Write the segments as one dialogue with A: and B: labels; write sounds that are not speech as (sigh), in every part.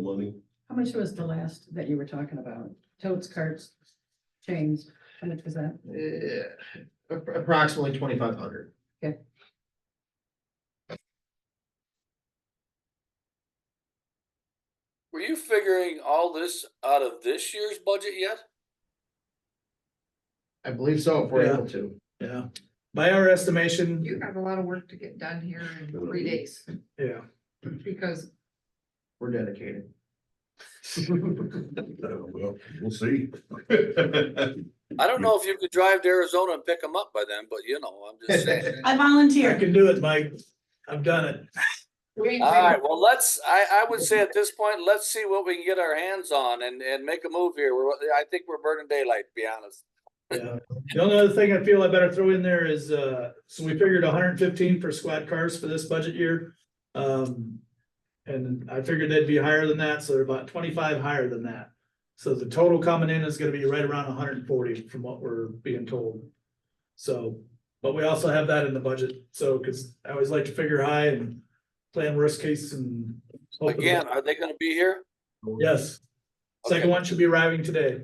A: money.
B: How much was the last that you were talking about? Totes, carts, chains, how much was that?
C: Eh, appro- approximately twenty-five hundred.
D: Were you figuring all this out of this year's budget yet?
C: I believe so, if we're
E: Yeah.
C: able to.
E: Yeah, by our estimation,
F: You have a lot of work to get done here in three days,
E: yeah,
F: because
C: We're
A: (laughs)
C: dedicated.
A: Uh, Well, we'll see.
D: I don't know if you could drive to Arizona and pick them up by then, but you know, I'm
C: (laughs)
D: just saying.
B: I
E: I
B: volunteer.
E: can do it, Mike. I've done it.
F: we,
D: All right, well, let's, I, I would say at this point, let's see what we can get our hands on and, and make a move here. We're, I think we're burning daylight, to be honest.
E: Yeah. The only other thing I feel I better throw in there is, uh, so we figured hundred and fifteen for squad cars for this budget year. Um, and I figured they'd be higher than that, so they're about twenty-five higher than that. So the total coming in is gonna be right around hundred and forty from what we're being told. So, but we also have that in the budget, so, cause I always like to figure high and plan worst case and. hope for the-
D: Again, are they gonna be here?
E: Yes, second
D: Okay.
E: one should be arriving today.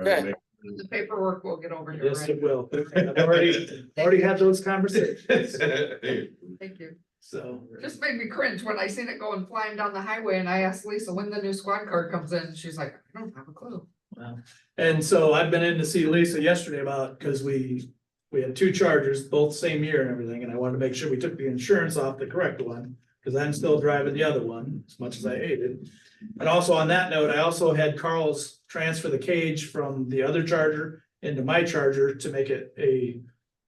D: Okay.
F: the paperwork will get over here,
E: Yes,
F: right?
E: it will. I've already, already had those conversations.
F: (laughs) Thank you.
E: So,
F: Just made me cringe when I seen it going flying down the highway and I asked Lisa when the new squad car comes in. She's like, I don't have a clue.
E: and so I've been in to see Lisa yesterday about, cause we, we had two chargers, both same year and everything, and I wanted to make sure we took the insurance off the correct one. Cause I'm still driving the other one, as much as I hate it. And also on that note, I also had Carl's transfer the cage from the other charger into my charger to make it a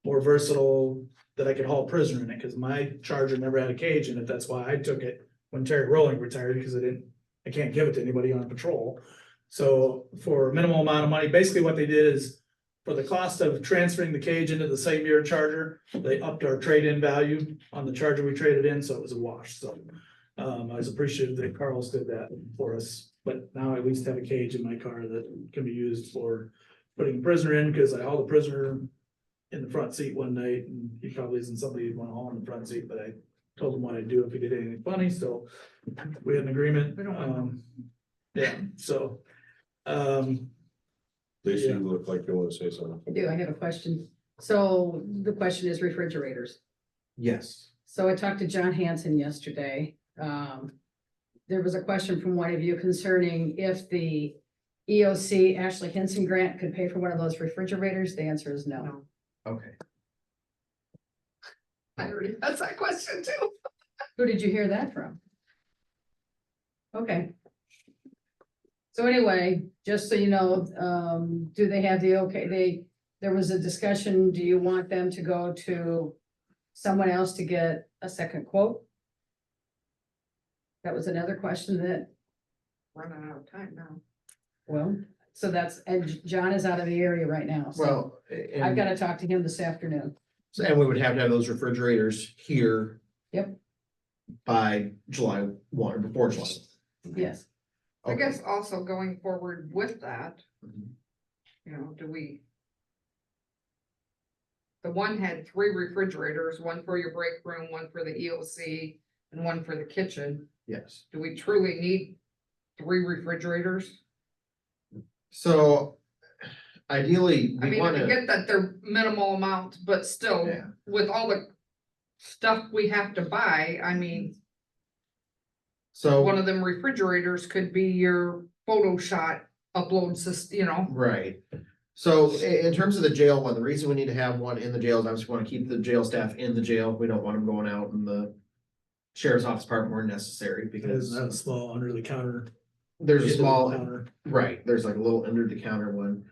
E: more versatile, that I could haul prisoner in it, cause my charger never had a cage in it, that's why I took it when Terry Rowling retired, because I didn't, I can't give it to anybody on patrol. So for a minimal amount of money, basically what they did is for the cost of transferring the cage into the same year charger, they upped our trade-in value on the charger we traded in, so it was a wash, so. Um, I was appreciative that Carl's did that for us, but now I at least have a cage in my car that can be used for putting a prisoner in, because I hauled a prisoner in the front seat one night, and he probably isn't somebody you'd wanna haul in the front seat, but I told him what I'd do if he did anything funny, so we had an agreement,
F: We don't want
E: um, yeah, so. Um,
A: Lisa, you look like you wanna say something.
B: I do, I have a question. So the question is refrigerators.
C: Yes.
B: So I talked to John Hanson yesterday. Um, there was a question from one of you concerning if the EOC Ashley Henson grant could pay for one of those refrigerators. The answer is no.
F: No.
C: Okay.
F: I already asked that question too.
B: Who did you hear that from? Okay. So anyway, just so you know, um, do they have the okay, they, there was a discussion, do you want them to go to someone else to get a second quote? That was another question that,
F: Running out of time now.
B: well, so that's, and John is out of the area right now, so
C: Well, a-
B: I've
C: and,
B: gotta talk to him this afternoon.
C: and we would have to have those refrigerators here.
B: Yep.
C: By July one, or before July.
B: Yes,
F: I
C: Okay.
F: guess also going forward with that,
C: Mhm.
F: you know, do we? The one had three refrigerators, one for your break room, one for the EOC, and one for the kitchen.
C: Yes.
F: Do we truly need three refrigerators?
C: So ideally,
F: I
C: we
F: mean, I
C: wanna.
F: get that they're minimal amounts, but still,
C: Yeah.
F: with all the stuff we have to buy, I mean, one
C: So,
F: of them refrigerators could be your Photoshop upload system, you know?
C: right. So i- in terms of the jail one, the reason we need to have one in the jail is obviously we wanna keep the jail staff in the jail. We don't want them going out in the. Sheriff's office part where necessary
E: because
C: because
E: that's a small under the counter.
C: there's a
E: under the
C: small
E: counter.
C: Right, there's like a little under the counter one.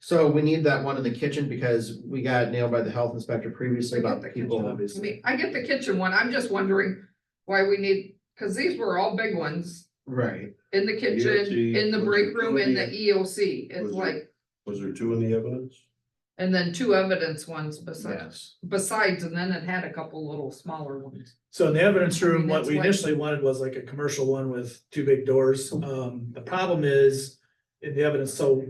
C: So we need that one in the kitchen because we got nailed by the health inspector previously
F: We got
C: about
F: the
C: people.
E: kitchen.
F: I
C: obviously.
F: mean, I get the kitchen one, I'm just wondering why we need, cause these were all big ones,
C: Right,
F: in the kitchen,
A: EOC,
F: in the
A: was
F: break
A: it
F: room, in the
A: utility?
F: EOC, it's
A: Was it-
F: like,
A: Was there two in the evidence?
F: and then two evidence ones besides,
C: yes,
F: besides, and then it had a couple little smaller ones.
E: So in the evidence
F: I mean,
E: room, what
F: that's
E: we
F: why-
E: initially wanted was like a commercial one with two big doors. Um, the problem is in the evidence, so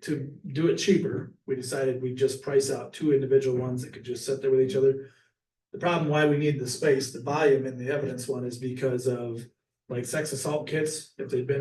E: to do it cheaper, we decided we'd just price out two individual ones that could just sit there with each other. The problem why we need the space, the volume in the evidence one is because of like sex assault kits, if they've been